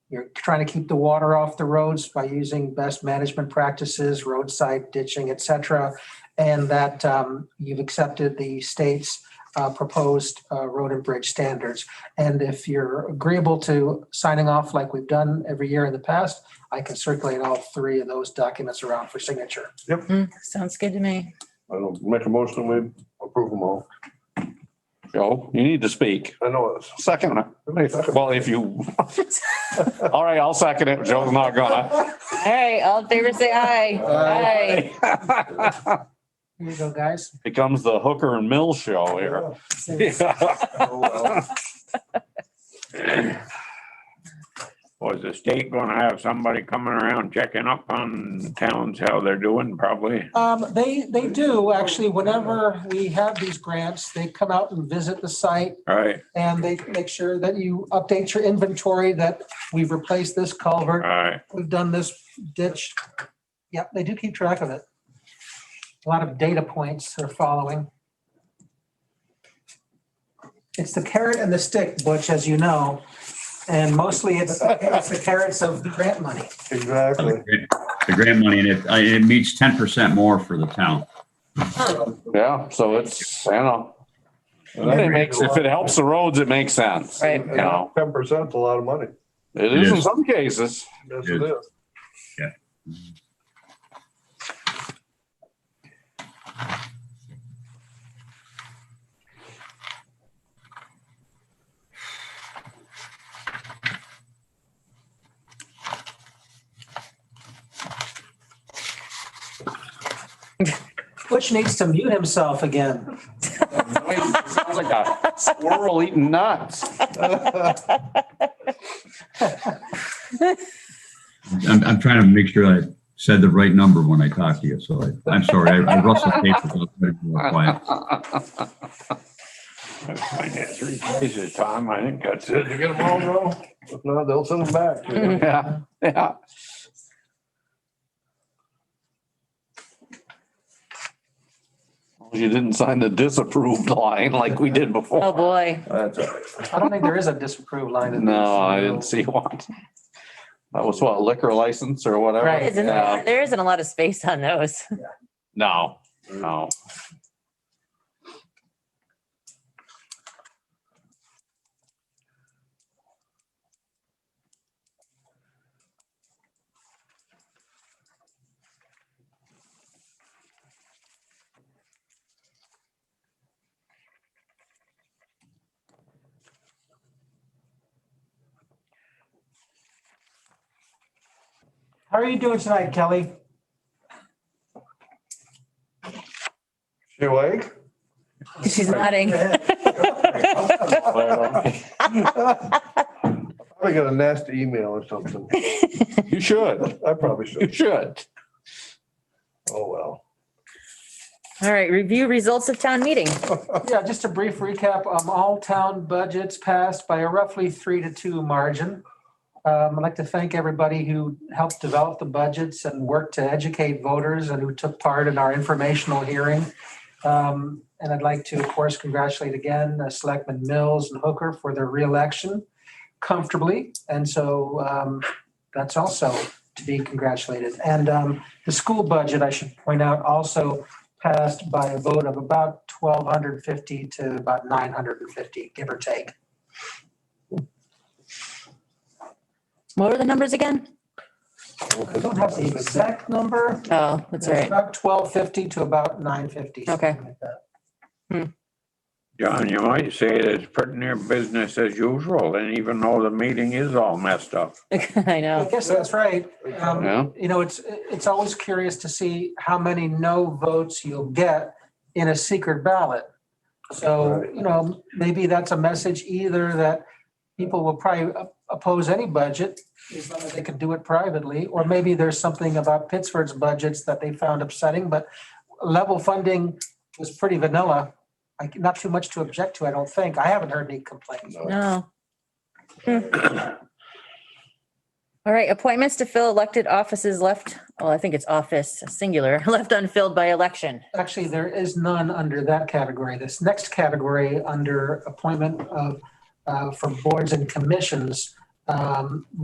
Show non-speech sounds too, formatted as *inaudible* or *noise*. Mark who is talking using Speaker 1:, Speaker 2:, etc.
Speaker 1: You're trying to keep the water off the roads by using best management practices, roadside ditching, et cetera. And that um, you've accepted the state's uh, proposed uh, road and bridge standards. And if you're agreeable to signing off like we've done every year in the past, I can circulate all three of those documents around for signature.
Speaker 2: Hmm, Sounds good to me.
Speaker 3: I'll make a motion, we approve them all.
Speaker 4: Joe, you need to speak.
Speaker 3: I know it's.
Speaker 4: Second, well, if you, all right, I'll second it. Joe's not gonna.
Speaker 2: All right, all in favor, say aye. Aye.
Speaker 1: Here you go, guys.
Speaker 4: *laughs* Becomes the hooker and mill show here. *laughs*
Speaker 3: Oh,
Speaker 5: Was the state gonna have somebody coming around checking up on towns, how they're doing probably?
Speaker 1: Um, they, they do actually, whenever we have these grants, they come out and visit the site
Speaker 5: Right,
Speaker 1: and they make sure that you update your inventory, that we've replaced this culvert,
Speaker 5: right,
Speaker 1: we've done this ditch. Yep, they do keep track of it. A lot of data points are following. It's the carrot and the stick, Butch, as you know, and mostly it's it's the carrots of grant money.
Speaker 3: Exactly.
Speaker 6: The grant money, and it, I- it meets ten percent more for the town.
Speaker 4: Yeah, so it's, you know, it makes, if it helps the roads, it makes sense.
Speaker 2: Right.
Speaker 4: You know,
Speaker 3: Ten percent's a lot of money.
Speaker 4: it is in some cases. *laughs*
Speaker 3: Yes, it is.
Speaker 1: Butch needs to mute himself again.
Speaker 4: Sounds like a Squirrel eating nuts.
Speaker 6: I'm, I'm trying to make sure I said the right number when I talked to you, so I, I'm sorry, I I rustled papers. I was trying to be more quiet.
Speaker 5: I find that three places, Tom, I think that's it.
Speaker 3: You get them all, bro? If not, they'll send them back. you know.
Speaker 4: Yeah, yeah. You didn't sign the disapproved line like we did
Speaker 2: Oh,
Speaker 4: before.
Speaker 2: boy.
Speaker 3: That's all right.
Speaker 1: I don't think there is a disapproved line in this.
Speaker 4: No, I didn't see one. That was what liquor license or whatever?
Speaker 1: Right.
Speaker 2: Isn't,
Speaker 4: Yeah.
Speaker 2: there isn't a lot of space on those. *laughs*
Speaker 4: No, no.
Speaker 1: How are you doing tonight, Kelly?
Speaker 3: She awake?
Speaker 1: *laughs*
Speaker 2: She's nodding.
Speaker 3: Probably got a nasty email or something.
Speaker 4: You should,
Speaker 3: I probably
Speaker 4: you
Speaker 3: should.
Speaker 4: should.
Speaker 3: Oh, well.
Speaker 2: All right, review results of town meeting.
Speaker 1: Yeah, just a brief recap. Um, all town budgets passed by a roughly three to two margin. Um, I'd like to thank everybody who helped develop the budgets and worked to educate voters and who took part in our informational hearing. Um, and I'd like to, of course, congratulate again, uh, Selectmen Mills and Hooker for their reelection comfortably. And so, um, that's also to be congratulated. And, um, the school budget, I should point out, also passed by a vote of about twelve hundred fifty to about nine hundred and fifty, give or take.
Speaker 2: What were the numbers again?
Speaker 1: I don't have the exact number.
Speaker 2: Oh, that's
Speaker 1: It's
Speaker 2: right. *laughs*
Speaker 1: About twelve fifty to about nine fifty.
Speaker 5: John, you might say that it's pretty near business as usual, and even though the meeting is all messed up.
Speaker 2: I
Speaker 1: I
Speaker 2: know.
Speaker 1: guess that's right. Um,
Speaker 4: Yeah,
Speaker 1: you know, it's, it's always curious to see how many no votes you'll get in a secret ballot. So,
Speaker 3: Right.
Speaker 1: you know, maybe that's a message either that people will probably op- oppose any budget as long as they can do it privately, or maybe there's something about Pittsburgh's budgets that they found upsetting, but level funding was pretty vanilla. Like, not too much to object to, I don't think. I haven't heard any complaints.
Speaker 2: No. Hmm. All right, appointments to fill elected offices left, well, I think it's office singular, *laughs* left unfilled by election.
Speaker 1: Actually, there is none under that category. This next category, under appointment of, uh, for boards and commissions, um,